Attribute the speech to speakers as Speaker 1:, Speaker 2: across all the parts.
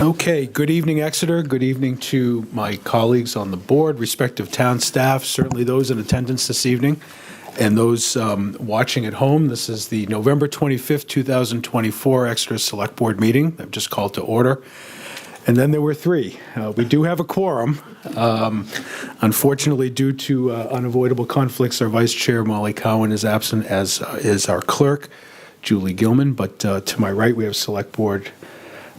Speaker 1: Okay, good evening, Exeter. Good evening to my colleagues on the board, respective town staff, certainly those in attendance this evening, and those um, watching at home. This is the November 25th, 2024 Exeter Select Board meeting. I've just called to order. And then there were three. Uh, We do have a quorum. Um, Unfortunately, due to uh, unavoidable conflicts, our Vice Chair, Molly Cowan, is absent, as uh, is our clerk, Julie Gilman. But uh, to my right, we have Select Board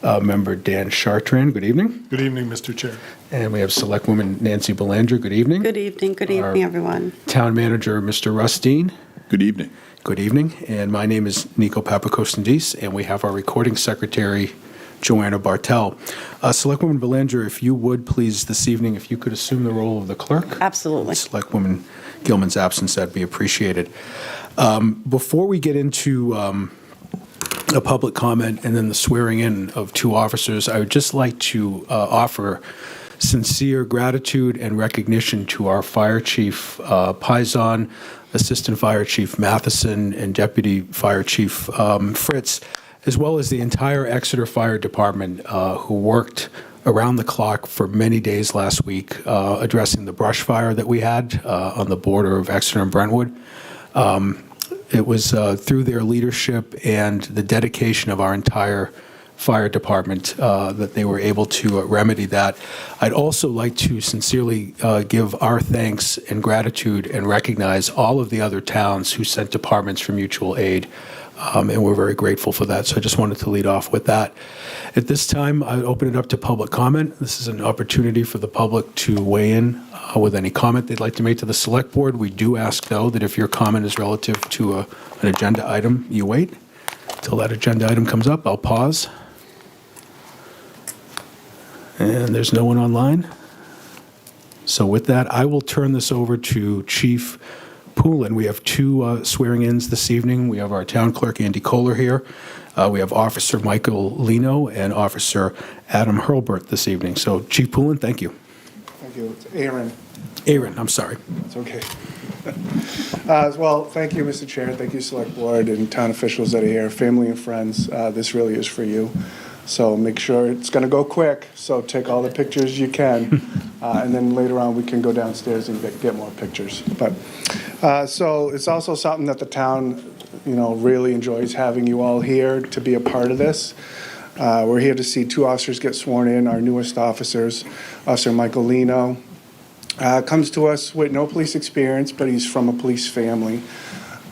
Speaker 1: uh, Member Dan Chartrand. Good evening.
Speaker 2: Good evening, Mr. Chair.
Speaker 1: And we have Selectwoman Nancy Belanger. Good evening.
Speaker 3: Good evening, good
Speaker 1: Our-
Speaker 3: evening, everyone.
Speaker 1: Town Manager, Mr. Rustine.
Speaker 4: Good evening.
Speaker 1: Good evening. And my name is Nico Papakostendis, and we have our recording secretary, Joanna Bartel. Uh, Selectwoman Belanger, if you would, please, this evening, if you could assume the role of the clerk.
Speaker 3: Absolutely.
Speaker 1: Selectwoman Gilman's absence, that'd be appreciated. Um, Before we get into um, a public comment and then the swearing in of two officers, I would just like to uh, offer sincere gratitude and recognition to our Fire Chief uh, Pizon, Assistant Fire Chief Matheson, and Deputy Fire Chief um, Fritz, as well as the entire Exeter Fire Department uh, who worked around the clock for many days last week uh, addressing the brush fire that we had uh, on the border of Exeter and Brentwood. It was uh, through their leadership and the dedication of our entire fire department uh, that they were able to uh, remedy that. I'd also like to sincerely uh, give our thanks and gratitude and recognize all of the other towns who sent departments for mutual aid. Um, and we're very grateful for that. So I just wanted to lead off with that. At this time, I open it up to public comment. This is an opportunity for the public to weigh in uh, with any comment they'd like to make to the select board. We do ask, though, that if your comment is relative to a, an agenda item, you wait till that agenda item comes up. I'll pause. And there's no one online. So with that, I will turn this over to Chief Poulin. We have two uh, swearing-ins this evening. We have our town clerk, Andy Kohler, here. Uh, We have Officer Michael Lino and Officer Adam Hurlbert this evening. So Chief Poulin, thank you.
Speaker 2: Thank you. It's Aaron.
Speaker 1: Aaron, I'm sorry.
Speaker 2: It's okay. Uh, Well, thank you, Mr. Chair. Thank you, Select Board and town officials that are here, family and friends. Uh, This really is for you. So make sure, it's going to go quick, so take all the pictures you can. Uh, And then later on, we can go downstairs and get- get more pictures. But, uh, so it's also something that the town, you know, really enjoys having you all here to be a part of this. Uh, We're here to see two officers get sworn in, our newest officers, Officer Michael Lino, uh, comes to us with no police experience, but he's from a police family.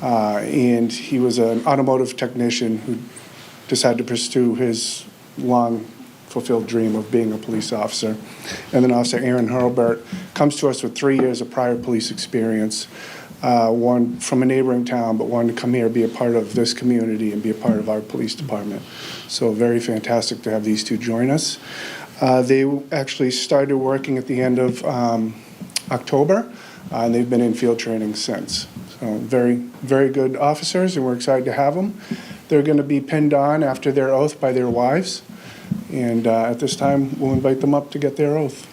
Speaker 2: Uh, and he was an automotive technician who decided to pursue his long fulfilled dream of being a police officer. And then Officer Aaron Hurlbert comes to us with three years of prior police experience, uh, one from a neighboring town, but wanted to come here, be a part of this community, and be a part of our police department. So very fantastic to have these two join us. Uh, They actually started working at the end of um, October, uh, and they've been in field training since. So very, very good officers, and we're excited to have them. They're going to be pinned on after their oath by their wives, and uh, at this time, we'll invite them up to get their oath.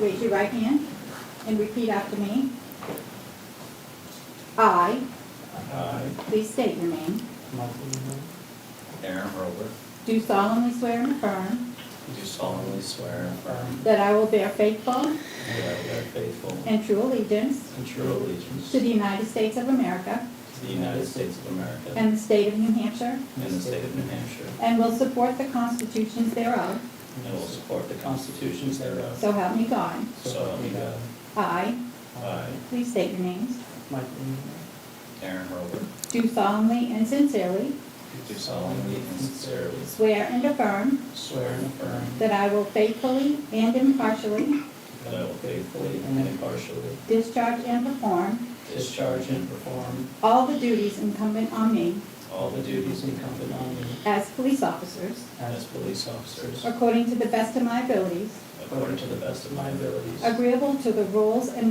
Speaker 5: Raise your right hand and repeat after me. I, please state your name,
Speaker 6: Aaron Robert,
Speaker 5: do solemnly swear and affirm
Speaker 6: do solemnly swear and affirm
Speaker 5: that I will bear faithful
Speaker 6: that I will bear faithful
Speaker 5: and true allegiance
Speaker 6: and true allegiance
Speaker 5: to the
Speaker 6: to
Speaker 5: United States of America
Speaker 6: the United States of America and
Speaker 5: and the state of New Hampshire,
Speaker 6: the state of New Hampshire,
Speaker 5: and will support the constitutions thereof,
Speaker 6: and will support the constitutions thereof,
Speaker 5: so help me God.
Speaker 6: so help me God.
Speaker 5: I,
Speaker 6: I,
Speaker 5: please state your names,
Speaker 7: Michael,
Speaker 6: Aaron Robert,
Speaker 5: do solemnly and sincerely
Speaker 6: do solemnly and sincerely
Speaker 5: swear and affirm
Speaker 6: swear and affirm
Speaker 5: that I will faithfully and impartially
Speaker 6: that I will faithfully and impartially
Speaker 5: discharge and perform
Speaker 6: discharge and perform
Speaker 5: all the duties incumbent on me
Speaker 6: all the duties incumbent on me
Speaker 5: as police officers,
Speaker 6: as police officers,
Speaker 5: according to the best of my abilities,
Speaker 6: according to the best of my abilities.
Speaker 5: agreeable to the rules and